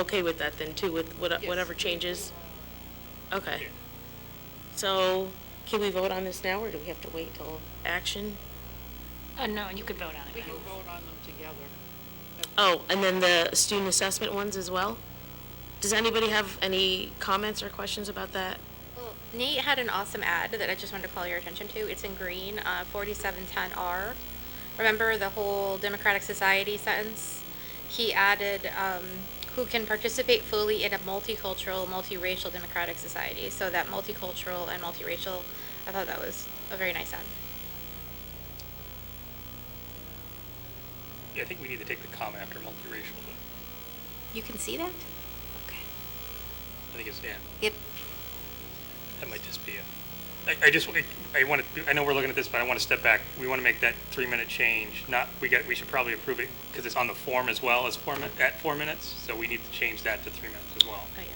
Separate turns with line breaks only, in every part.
okay with that then too, with what-
Yes.
uh, whatever changes? Okay. So can we vote on this now, or do we have to wait till action?
Uh, no, you could vote on
We
it.
can vote on them together.
Oh, and then the student assessment ones as well? Does anybody have any comments or questions about that?
Well, Nate had an awesome ad that I just wanted to call your attention to. It's in green, uh, 4710R. Remember the whole Democratic Society sentence? He added, um, who can participate fully in a multicultural, multiracial democratic society. So that multicultural and multiracial, I thought that was a very nice ad.
Yeah, I think we need to take the comma after multiracial, but
You can see that? Okay.
I think it's, yeah,
Yep.
that might just be a, I, I just, I- I want to, I know we're looking at this, but I want to step back. We want to make that three-minute change, not, we got, we should probably approve it because it's on the form as well as four, min- at four minutes, so we need to change that to three minutes as well.
Oh, yeah.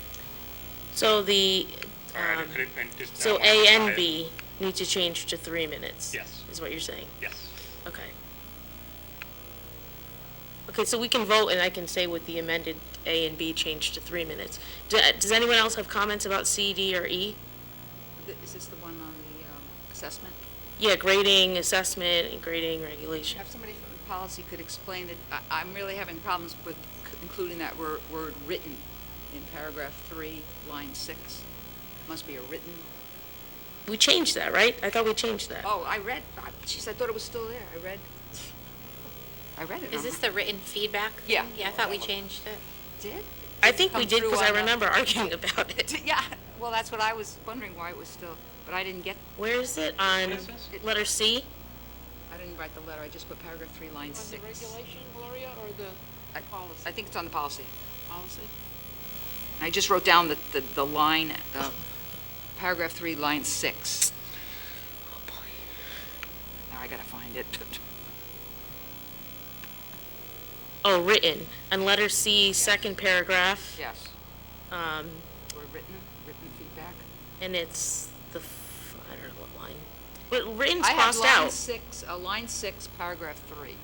So the,
Sorry, I
um,
didn't- I didn't- I just- I
so
wanted to
A
tie
and
it.
B need to change to three minutes?
Yes.
Is what you're saying?
Yes.
Okay. Okay, so we can vote, and I can say with the amended A and B changed to three minutes. Do- Does anyone else have comments about C, D, or E?
Th- Is this the one on the um, assessment?
Yeah, grading, assessment, and grading regulation.
If somebody from policy could explain that, I- I'm really having problems with c- including that wor- word "written" in paragraph three, line six. Must be a written,
We changed that, right? I thought we changed that.
oh, I read, I- jeez, I thought it was still there, I read, I read it.
Is
I'm-
this the written feedback?
Yeah.
Yeah, I thought we changed it.
Did?
I
Did it
think we
come
did,
through
because I
on the-
remember arguing about it.
Did- Yeah, well, that's what I was wondering why it was still, but I didn't get,
Where is it? On
What is this?
letter C?
I didn't write the letter, I just put paragraph three, line
On the
six.
regulation, Gloria, or the
I- I
policy?
think it's on the policy.
Policy?
I just wrote down the, the, the line, uh, paragraph three, line six.
Oh,
Now I gotta find it.
Oh, written. On letter C, second paragraph.
Yes,
Um,
or written, written feedback.
and it's the, f- I don't know what line. But written's
I have
crossed
line
out.
six, uh, line six, paragraph three.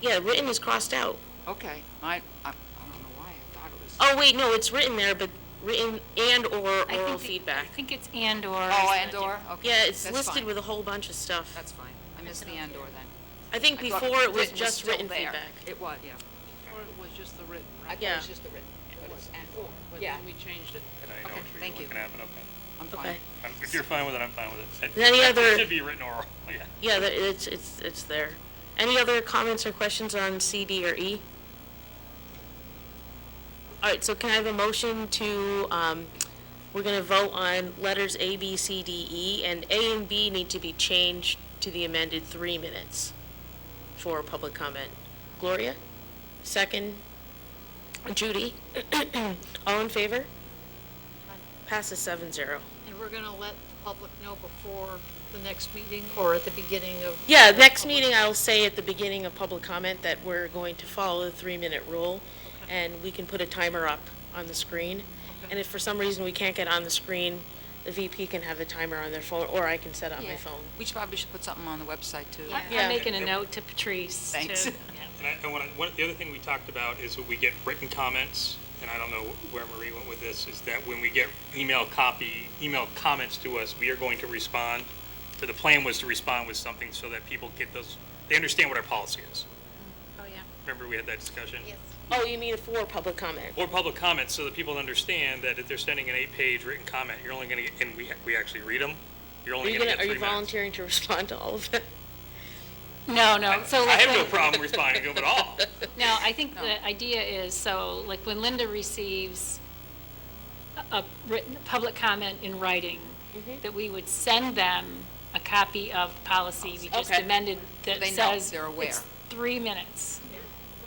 Yeah, written is crossed out.
Okay, I, I, I don't know why I thought it was.
Oh, wait, no, it's written there, but written and/or
I think
oral
the-
feedback.
I think it's and/or.
Oh, and or, okay.
Yeah, it's
that's
listed
fine.
with a whole bunch of stuff.
That's fine, I missed the and or then.
I think
I thought
before it was
written
just
still
written
there.
feedback.
It was, yeah.
Or it was just the written,
I
right?
thought it
Yeah.
was just the written.
It was
and
before, but
Yeah,
then we changed it.
And I know
Okay,
what you're
thank you.
looking at, but okay.
I'm fine.
Okay.
Um, If you're fine with it, I'm fine with it. It-
Any other-
It should be written oral, yeah.
Yeah, that- it's, it's, it's there. Any other comments or questions on C, D, or E? All right, so can I have a motion to, um, we're gonna vote on letters A, B, C, D, E, and A and B need to be changed to the amended three minutes for public comment. Gloria? Second? Judy? All in favor? Passes seven zero.
And we're gonna let the public know before the next meeting or at the beginning of.
Yeah, next meeting, I'll say at the beginning of public comment that we're going to follow the three-minute rule, and we can put a timer up on the screen. And if for some reason we can't get on the screen, the VP can have the timer on their phone, or I can set it on my
Yeah.
phone.
We should probably should put something on the website too.
I-
Yeah.
I'm making a note to Patrice to.
Thanks.
yeah.
And I, I want to, one, the other thing we talked about is when we get written comments, and I don't know where Marie went with this, is that when we get email copy, email comments to us, we are going to respond. So the plan was to respond with something so that people get those, they understand what our policy is.
Oh, yeah.
Remember, we had that discussion?
Yes.
Oh, you mean for public comment?
Or public comments, so that people understand that if they're sending an eight-page written comment, you're only going to, and we, we actually read them, you're
Are
only
you
going
gonna,
to get
are
three
you
minutes.
volunteering to respond to all of it?
No, no, so
I
like.
have no
when-
problem responding to them at all.
No, I think the idea is, so, like, when Linda receives a- a written, public comment in writing,
Mm-hmm.
that we would send them a copy of policy we just
Okay.
amended that
They
says.
know, they're aware.
It's three minutes.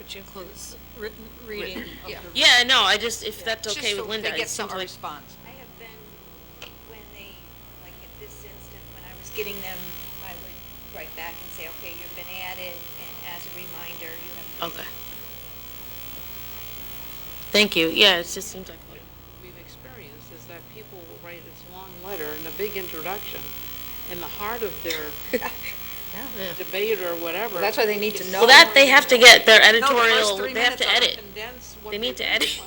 Which includes written reading
Yeah.
Yeah, no, I just, if that's
Just
okay
so
with Linda,
They
it
get some
seems like,
response.
I have been, when they, like at this instant, when I was getting them, I would write back and say, okay, you've been added, and as a reminder, you have to.
okay. Thank you, yeah, it just seems like,
We've experienced is that people will write this long letter and a big introduction, and the heart of their debate or whatever.
That's why they need to know.
well, that, they have to get their
No, the first
editorial,
three
they have
minutes
to
are
edit.
condensed.
condense what
Oh, They need to
really
edit.
want